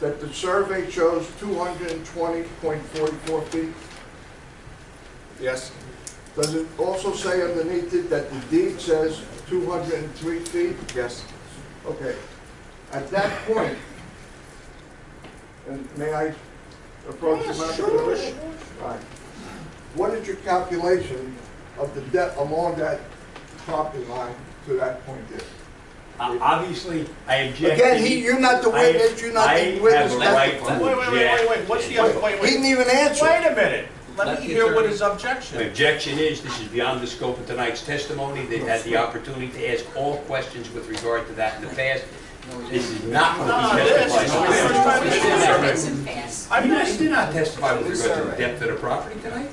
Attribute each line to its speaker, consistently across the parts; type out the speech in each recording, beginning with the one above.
Speaker 1: that the survey shows two hundred and twenty point forty-four feet?
Speaker 2: Yes,
Speaker 1: Does it also say underneath it that the deed says two hundred and three feet?
Speaker 2: yes,
Speaker 1: Okay, at that point, and may I approach the microphone? Right. What is your calculation of the depth along that property line to that point there?
Speaker 3: O- Uh, Obviously, I object.
Speaker 1: Again, he, you're not the witness, you're not the witness.
Speaker 3: I have
Speaker 1: that's
Speaker 3: a
Speaker 1: the
Speaker 3: right
Speaker 1: point.
Speaker 3: to-
Speaker 4: Wait, wait, wait, wait, wait, what's the, wait, wait,
Speaker 1: He
Speaker 4: wait
Speaker 1: didn't even answer.
Speaker 4: a minute. Let
Speaker 5: Let
Speaker 4: me
Speaker 5: the
Speaker 4: hear what
Speaker 5: attorney-
Speaker 4: his
Speaker 3: The
Speaker 4: objection.
Speaker 3: objection is, this is beyond the scope of tonight's testimony. They've had the opportunity to ask all questions with regard to that in the past. This is not
Speaker 4: No,
Speaker 3: what we
Speaker 4: this is the first
Speaker 3: testified.
Speaker 4: time this is happening.
Speaker 3: I
Speaker 4: I'm
Speaker 3: mean,
Speaker 4: not,
Speaker 3: I did not testify with regard to the depth of the property tonight.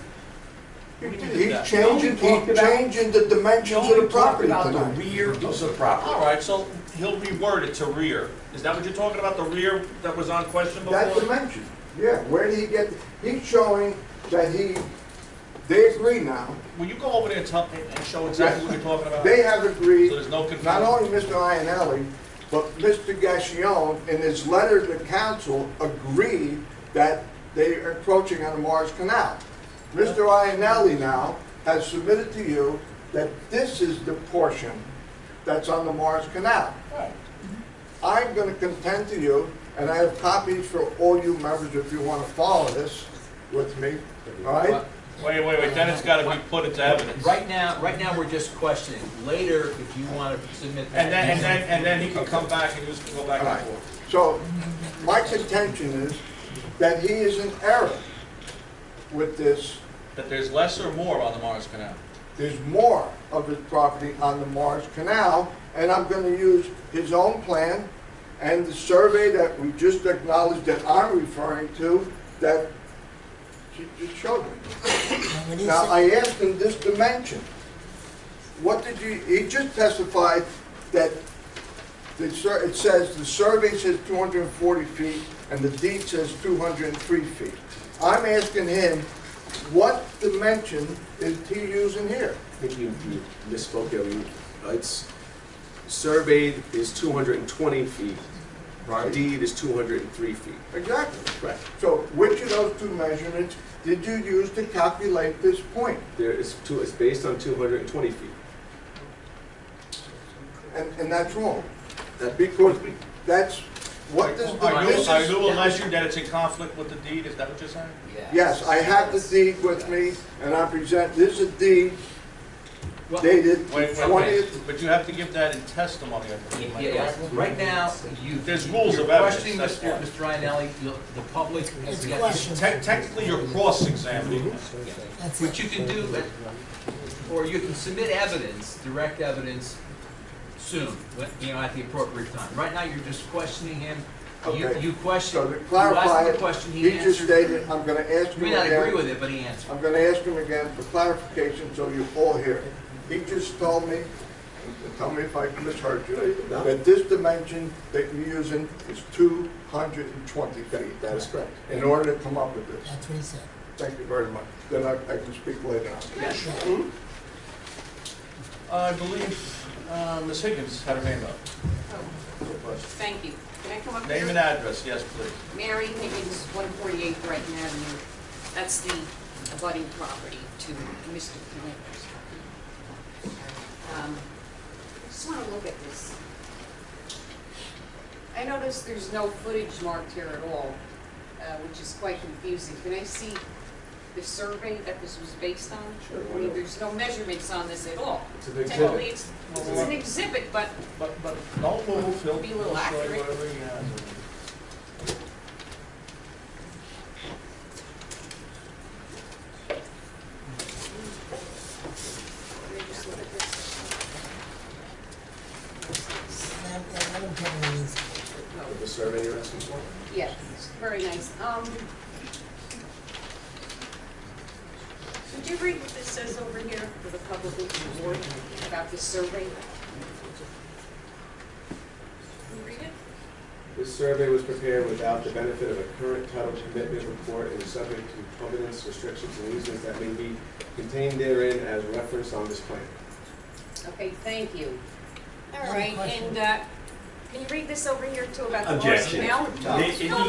Speaker 1: He's changing, he's changing the dimensions of the property
Speaker 3: About the
Speaker 1: tonight.
Speaker 3: rear of the property.
Speaker 4: all right, so he'll reword it to rear. Is that what you're talking about, the rear that was on question
Speaker 1: That
Speaker 4: before?
Speaker 1: dimension, yeah, where did he get, he's showing that he, they agree now,
Speaker 4: Will you go over there and tell, and show exactly what you're talking about?
Speaker 1: they have agreed
Speaker 4: So there's no confusion?
Speaker 1: Not only Mr. Ionelli, but Mr. Gassion, in his letter to council, agreed that they are encroaching on the Mars Canal. Mr. Ionelli now has submitted to you that this is the portion that's on the Mars Canal.
Speaker 4: Right.
Speaker 1: I'm going to contend to you, and I have copies for all you members if you want to follow this with me, all right?
Speaker 4: Wait, wait, wait, then it's gotta be put into evidence.
Speaker 5: Right now, right now, we're just questioning. Later, if you want to submit that.
Speaker 4: And then, and then, and then he can come back and just go back
Speaker 1: All
Speaker 4: and
Speaker 1: right.
Speaker 4: forth.
Speaker 1: So my contention is that he is in error with this.
Speaker 4: That there's less or more on the Morris Canal?
Speaker 1: There's more of his property on the Morris Canal, and I'm going to use his own plan and the survey that we just acknowledged that I'm referring to that she just showed me. Now, I asked him this dimension. What did you, he just testified that the sur- it says, the survey says 240 feet, and the deed says 203 feet. I'm asking him, what dimension is he using here?
Speaker 2: I think you you misspoke there. You- uh, It's surveyed is 220 feet. Deed is 203 feet.
Speaker 1: Exactly.
Speaker 2: Correct.
Speaker 1: So which of those two measurements did you use to calculate this point?
Speaker 2: There is two, it's based on 220 feet.
Speaker 1: And, and that's wrong.
Speaker 2: That big
Speaker 1: Because that's, what does
Speaker 4: Are
Speaker 1: the,
Speaker 4: you,
Speaker 1: this
Speaker 4: are
Speaker 1: is,
Speaker 4: you alleging that it's in conflict with the deed, is that what you're saying?
Speaker 1: yes, I have the deed with me, and I present, this is a deed
Speaker 5: Well,
Speaker 1: dated
Speaker 4: Wait, wait, wait,
Speaker 1: twentieth.
Speaker 4: but you have to give that in testimony, I
Speaker 5: Yeah,
Speaker 4: believe, am I
Speaker 5: yeah, yeah.
Speaker 4: correct?
Speaker 5: Right now, you.
Speaker 4: There's rules
Speaker 5: you're
Speaker 4: of evidence,
Speaker 5: questioning
Speaker 4: that's
Speaker 5: Mr. Mr.
Speaker 4: why.
Speaker 5: Ionelli, you- the public. has
Speaker 6: It's
Speaker 5: got-
Speaker 6: questions.
Speaker 4: Te- Technically, you're cross-examining.
Speaker 6: That's
Speaker 5: What
Speaker 6: it.
Speaker 5: you can do, uh, or you can submit evidence, direct evidence, soon, when- you know, at the appropriate time. Right now, you're just questioning him. You,
Speaker 1: Okay.
Speaker 5: you
Speaker 1: So to
Speaker 5: question, you
Speaker 1: clarify
Speaker 5: asked him a
Speaker 1: it,
Speaker 5: question,
Speaker 1: he
Speaker 5: he
Speaker 1: just
Speaker 5: answered.
Speaker 1: stated, I'm gonna ask him
Speaker 5: You may not agree
Speaker 1: again,
Speaker 5: with it, but he answered.
Speaker 1: I'm gonna ask him again for clarification, so you all hear. He just told me, and tell me if I misheard you,
Speaker 2: No.
Speaker 1: that this dimension that you're using is two hundred and twenty feet.
Speaker 2: That is correct.
Speaker 1: in order to come up with this.
Speaker 6: That's what he said.
Speaker 1: Thank you very much. Then I, I can speak later on.
Speaker 4: I believe uh, Ms. Higgins had her hand up.
Speaker 7: Thank you. Can I come up
Speaker 4: Name and
Speaker 7: here?
Speaker 4: address, yes, please.
Speaker 7: Mary Higgins, 148 Brighton Avenue. That's the abutting property to Mr. Flanders. Um, Just want to look at this. I notice there's no footage marked here at all, uh, which is quite confusing. Can I see the survey that this was based on?
Speaker 2: Sure,
Speaker 7: I
Speaker 2: why
Speaker 7: mean,
Speaker 2: not?
Speaker 7: there's no measurements on this at all.
Speaker 2: It's an
Speaker 7: Technically,
Speaker 2: exhibit.
Speaker 7: it's it's an exhibit, but
Speaker 4: But, but don't move, he'll
Speaker 7: Be a
Speaker 4: he'll
Speaker 7: little
Speaker 4: show you
Speaker 7: accurate.
Speaker 4: whatever he has.
Speaker 7: Let me just look at this.
Speaker 6: Let him- let him tell me what he's-
Speaker 2: The survey you're asking for?
Speaker 7: Yeah, it's very nice. Um, Could you read what this says over here for the public and the board about this survey? Can you read it?
Speaker 2: This survey was prepared without the benefit of a current title commitment report and is subject to covenants, restrictions, and easements that may be contained therein as referenced on this plan.
Speaker 7: Okay, thank you. All
Speaker 6: One
Speaker 7: right,
Speaker 6: question.
Speaker 7: and uh, can you read this over here too about the Morris
Speaker 3: Objection.
Speaker 7: Canal?
Speaker 3: They-
Speaker 7: No,